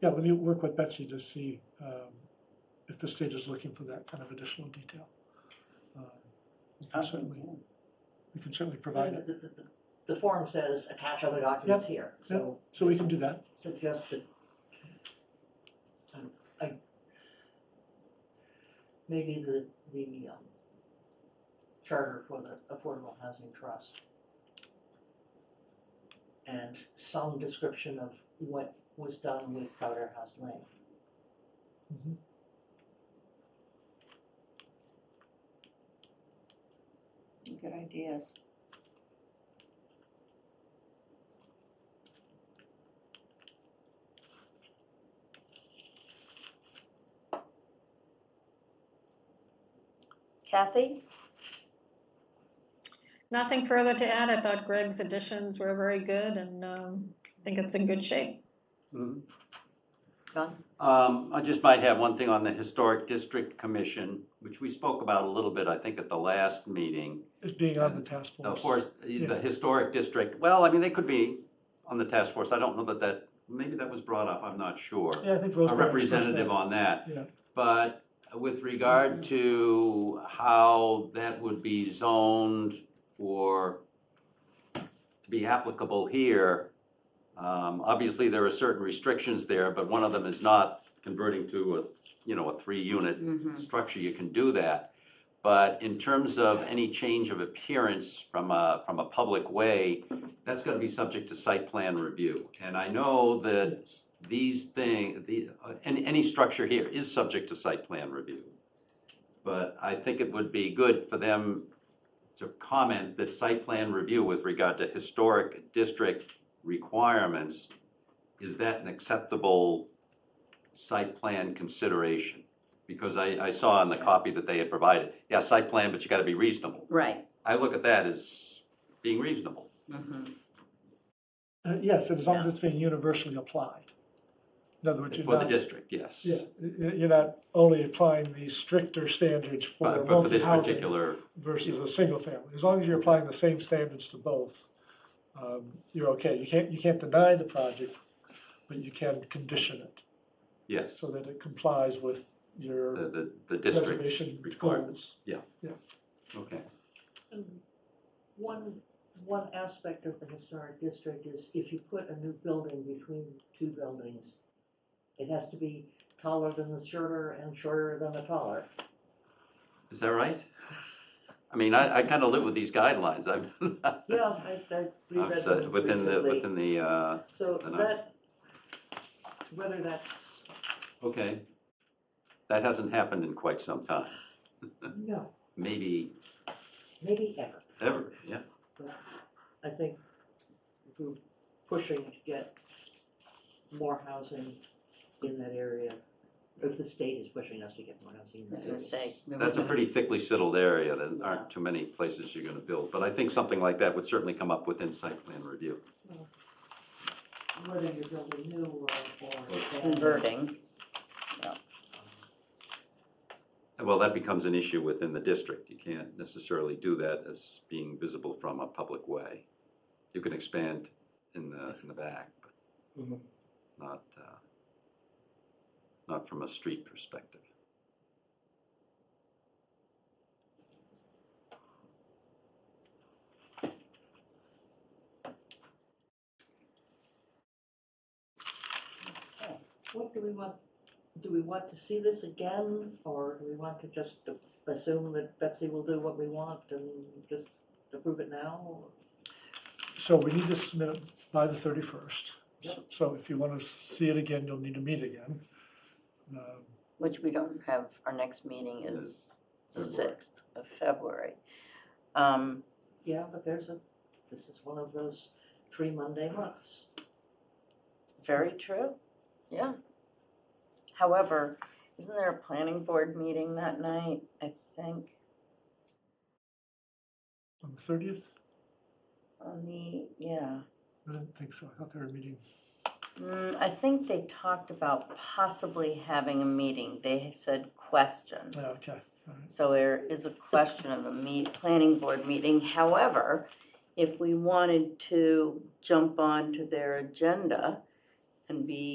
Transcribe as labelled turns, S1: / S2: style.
S1: Yeah, we need to work with Betsy to see um, if the state is looking for that kind of additional detail. Um, We can certainly, we can certainly provide it,
S2: The- the- the- The form says attach other documents here, so
S1: so we can do that.
S2: suggest that. um, I- Maybe the, the um, charter for the Affordable Housing Trust. And some description of what was done with Powder House Lane.
S1: Mhm.
S3: Good ideas. Kathy?
S4: Nothing further to add. I thought Greg's additions were very good and um, I think it's in good shape.
S5: Mhm.
S3: John?
S5: Um, I just might have one thing on the Historic District Commission, which we spoke about a little bit, I think, at the last meeting.
S1: It's being on the task force.
S5: Of course,
S1: Yeah.
S5: the Historic District, well, I mean, they could be on the task force. I don't know that that, maybe that was brought up, I'm not sure.
S1: Yeah, I think
S5: A
S1: Rosemary expressed that.
S5: representative on that.
S1: Yeah.
S5: But with regard to how that would be zoned or to be applicable here, um, obviously, there are certain restrictions there, but one of them is not converting to a, you know, a three-unit
S3: Mm-hmm.
S5: structure, you can do that. But in terms of any change of appearance from a, from a public way, that's gonna be subject to site plan review. And I know that these thing, the, uh, any, any structure here is subject to site plan review. But I think it would be good for them to comment that site plan review with regard to historic district requirements, is that an acceptable site plan consideration? Because I, I saw in the copy that they had provided, yeah, site plan, but you gotta be reasonable.
S3: Right.
S5: I look at that as being reasonable.
S3: Mhm.
S1: Uh, Yes, and as long as it's being universally applied. In other words, you're
S5: For the
S1: not, yeah,
S5: district, yes.
S1: y- y- you're not only applying the stricter standards for
S5: But but Uh, for
S1: multi
S5: this
S1: housing
S5: particular,
S1: versus a single family. As long as you're applying the same standards to both, um, you're okay. You can't, you can't deny the project, but you can condition it
S5: yes,
S1: so that it complies with
S5: the,
S1: your
S5: the, the
S1: reservation
S5: district requirements,
S1: goals.
S5: okay.
S2: One, one aspect of the historic district is if you put a new building between two buildings, it has to be taller than the shorter and shorter than the taller.
S5: Is that right? I mean, I, I kinda live with these guidelines, I've,
S2: Yeah, I, I
S5: I've
S2: read
S5: said,
S2: that
S5: within the,
S2: recently.
S5: within the, uh,
S2: So
S5: and
S2: that, whether that's,
S5: okay. That hasn't happened in quite some time,
S2: no,
S5: maybe
S2: maybe ever.
S5: ever, yeah.
S2: I think if we're pushing to get more housing in that area, if the state is pushing us to get more housing in
S3: I was
S2: that
S3: gonna
S2: area.
S3: say. we
S5: That's a
S3: were-
S5: pretty thickly settled area, there aren't too many places you're gonna build, but I think something like that would certainly come up within site plan review.
S2: Whether you're building new or, or.
S3: Converting.
S5: Well, that becomes an issue within the district, you can't necessarily do that as being visible from a public way. You can expand in the, in the back, but
S2: Mhm.
S5: not, uh, not from a street perspective.
S2: What do we want, do we want to see this again, or do we want to just assume that Betsy will do what we want and just approve it now?
S1: So we need to submit it by the thirty-first.
S2: Yep.
S1: So if you want to see it again, you'll need to meet again. Um,
S3: Which we don't have, our next meeting is the
S5: February.
S3: sixth of February. Um,
S2: Yeah, but there's a, this is one of those three Monday months.
S3: very true, yeah. However, isn't there a planning board meeting that night, I think,
S1: On the thirtieth?
S3: on the, yeah.
S1: I didn't think so. I thought they were meeting.
S3: Mm, I think they talked about possibly having a meeting, they said question.
S1: Yeah, oh, okay. All right.
S3: So there is a question of a meet, planning board meeting. However, if we wanted to jump onto their agenda and be